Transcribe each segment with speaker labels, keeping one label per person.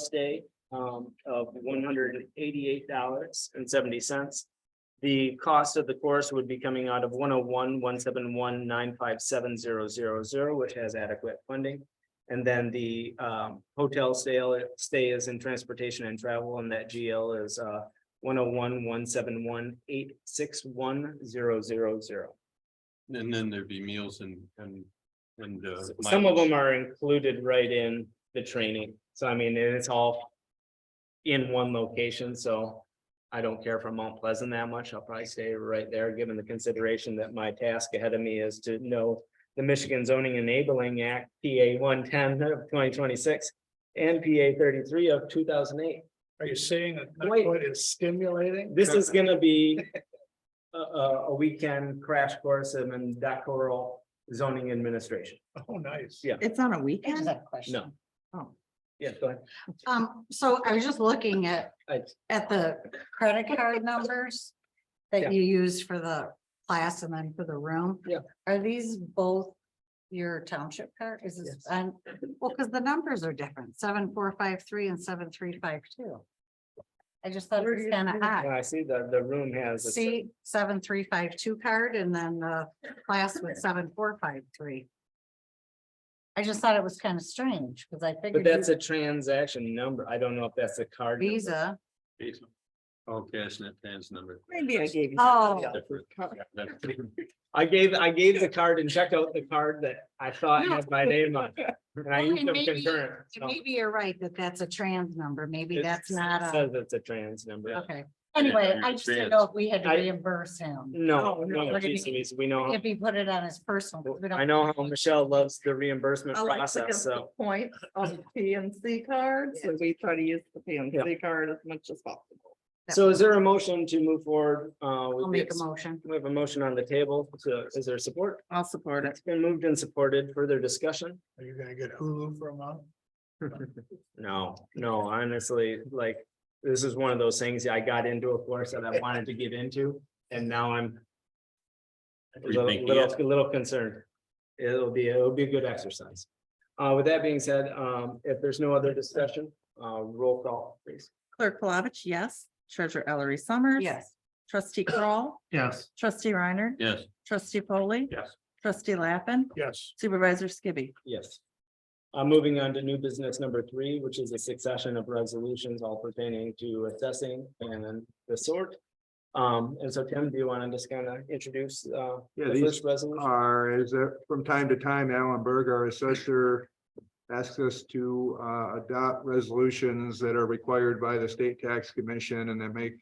Speaker 1: stay um of one hundred and eighty-eight dollars and seventy cents. The cost of the course would be coming out of one oh one, one seven one, nine five seven zero zero zero, which has adequate funding. And then the um hotel sale stay is in transportation and travel, and that GL is uh one oh one, one seven one, eight six one zero zero zero.
Speaker 2: And then there'd be meals and, and, and. uh,
Speaker 1: Some of
Speaker 2: mileage.
Speaker 1: them are included right in the training, so I mean, and it's all. In one location, so I don't care for Mount Pleasant that much, I'll probably stay right there, given the consideration that my task ahead of me is to know. The Michigan Zoning Enabling Act, PA one ten of twenty twenty six and PA thirty three of two thousand eight.
Speaker 3: Are you saying that
Speaker 1: Wait.
Speaker 3: Nutwood is stimulating?
Speaker 1: This is gonna be a, a, a weekend crash course in doctoral zoning administration.
Speaker 3: Oh, nice.
Speaker 1: Yeah.
Speaker 4: It's on a
Speaker 5: I just
Speaker 4: weekend?
Speaker 5: have a question.
Speaker 1: No.
Speaker 4: Oh.
Speaker 1: Yeah, go ahead.
Speaker 5: Um, so I was just looking at,
Speaker 1: I-
Speaker 5: at the credit card numbers
Speaker 1: Yeah.
Speaker 5: that you use for the class and then for the room.
Speaker 1: Yeah.
Speaker 5: Are these both your township card? Is this,
Speaker 1: Yes.
Speaker 5: and, well, because the numbers are different, seven, four, five, three and seven, three, five, two. I just thought it
Speaker 1: Where do
Speaker 5: was
Speaker 1: you-
Speaker 5: kind of
Speaker 1: Yeah,
Speaker 5: odd.
Speaker 1: I see the, the room has. a-
Speaker 5: See, seven, three, five, two card and then the class with seven, four, five, three. I just thought it was kind of strange because I
Speaker 1: But
Speaker 5: figured. you-
Speaker 1: that's a transaction number. I don't know if that's a card. number.
Speaker 5: Visa.
Speaker 2: Oh, cash net pans number.
Speaker 4: Maybe I gave you.
Speaker 5: Oh.
Speaker 2: Different. Yeah, that's different.
Speaker 1: I gave, I gave the card and checked out the card that I thought had my name on it. And I
Speaker 5: Well,
Speaker 1: used
Speaker 5: and
Speaker 1: them
Speaker 5: maybe-
Speaker 1: concurrent. so
Speaker 5: Maybe you're right that that's a trans number. Maybe
Speaker 1: it
Speaker 5: that's not
Speaker 1: Says
Speaker 5: a, Oh.
Speaker 1: it's a trans number.
Speaker 5: okay. Anyway,
Speaker 2: you're
Speaker 5: I just didn't
Speaker 2: trans.
Speaker 5: know if we had to
Speaker 1: I- Mm,
Speaker 5: reimburse him.
Speaker 1: No,
Speaker 4: Oh,
Speaker 5: no.
Speaker 1: no, geez, Louise, we know,
Speaker 5: If he put it on his personal. 'cause we
Speaker 1: how-
Speaker 5: don't-
Speaker 1: I know how Michelle loves the reimbursement
Speaker 5: Oh,
Speaker 4: I like to get
Speaker 1: process,
Speaker 4: the
Speaker 1: so.
Speaker 4: Points on P and C cards, so we try to use the P and C card as much as possible.
Speaker 1: So is there a motion to move forward? Uh,
Speaker 5: I'll
Speaker 1: with
Speaker 5: make a
Speaker 1: this?
Speaker 5: motion.
Speaker 1: We have a motion on the table. So is there support?
Speaker 4: I'll support it.
Speaker 1: It's been moved and supported. Further discussion?
Speaker 3: Are you gonna get Hulu for a month?
Speaker 1: No, no, honestly, like, this is one of those things I got into a course that I wanted to get into, and now I'm. a Little,
Speaker 2: Rethinking
Speaker 1: little- a little concerned. It'll be, it'll be a good exercise. Uh, with that being said, um, if there's no other discussion, uh, roll call, please.
Speaker 4: Clerk Palovich, yes. Treasurer Ellery Summers.
Speaker 5: Yes.
Speaker 4: Trustee Crawl,
Speaker 3: Yes.
Speaker 4: trustee Reiner,
Speaker 2: Yes,
Speaker 4: trustee Foley,
Speaker 2: yes.
Speaker 4: trustee Lappin,
Speaker 3: Yes,
Speaker 4: supervisor Skibby.
Speaker 1: Yes. Uh, moving on to new business number three, which is a succession of resolutions all pertaining to assessing and the sort. Um, and so Tim, do you want to just kind of introduce, uh,
Speaker 6: Yeah,
Speaker 1: the
Speaker 6: these
Speaker 1: first resolution?
Speaker 6: are, is that from time to time, Alan Berg, our assessor, asks us to uh, adopt resolutions that are required by the state tax commission and that make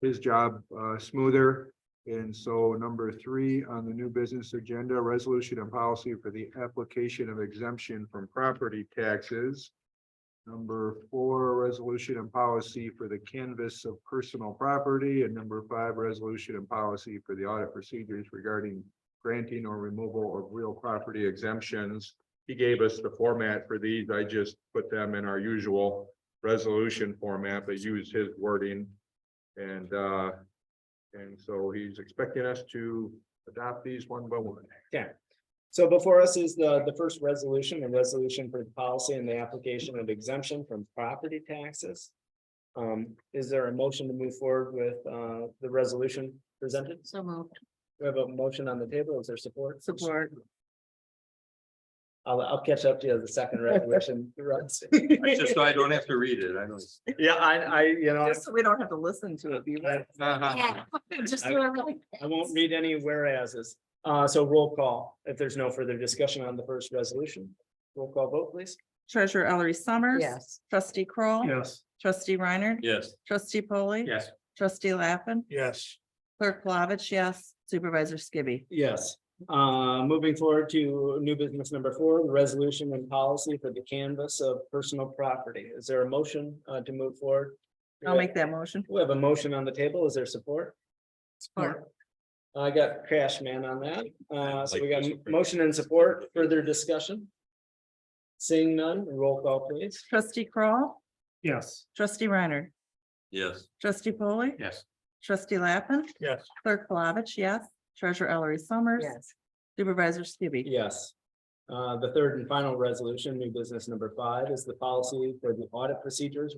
Speaker 6: his job uh, smoother. And so number three on the new business agenda, resolution and policy for the application of exemption from property taxes. Number four, resolution and policy for the canvas of personal property, and number five, resolution and policy for the audit procedures regarding granting or removal of real property exemptions. He gave us the format for these. I just put them in our usual resolution format, but use his wording. And, uh, and so he's expecting us to adopt these one by one.
Speaker 1: So before us is the, the first resolution, a resolution for the policy and the application of exemption from property taxes. Um, is there a motion to move forward with, uh, the resolution presented?
Speaker 5: So moved.
Speaker 1: We have a motion on the table. Is there support?
Speaker 4: Support.
Speaker 1: I'll, I'll catch up to you as the second resolution. runs.
Speaker 2: It's Just so I don't have to read it, I don't.
Speaker 1: Yeah, I, I, you know,
Speaker 4: Just so we don't have to listen to it. be right.
Speaker 5: Yeah, just
Speaker 1: Uh, I-
Speaker 5: do it really.
Speaker 1: I won't read any whereas's. Uh, so roll call, if there's no further discussion on the first resolution. Roll call vote, please.
Speaker 4: Treasurer Ellery Summers.
Speaker 5: Yes.
Speaker 4: Trustee Crawl.
Speaker 3: yes,
Speaker 4: Trustee Reiner.
Speaker 2: Yes,
Speaker 4: Trustee Polly.
Speaker 2: yes,
Speaker 4: Trustee Lappin,
Speaker 3: yes,
Speaker 4: clerk Palovich, yes. Supervisor Skibby.
Speaker 1: Yes, uh, moving forward to new business number four, the resolution and policy for the canvas of personal property. Is there a motion uh to move forward?
Speaker 4: I'll make that motion.
Speaker 1: We have a motion on the table. Is there support?
Speaker 5: Support.
Speaker 1: I got Crash Man on that. Uh, so we got
Speaker 2: Like this.
Speaker 1: motion and support, further discussion? Seeing none, roll call please.
Speaker 4: Trustee Crawl,
Speaker 3: yes,
Speaker 4: trustee Reiner,
Speaker 2: yes,
Speaker 4: trustee Polly,
Speaker 2: yes.
Speaker 4: trustee Lappin,
Speaker 3: yes,
Speaker 4: clerk Palovich, yes. Treasurer Ellery Summers.
Speaker 5: Yes.
Speaker 4: Supervisor Skibby.
Speaker 1: Yes. Uh, the third and final resolution, new business number five, is the policy for the audit procedures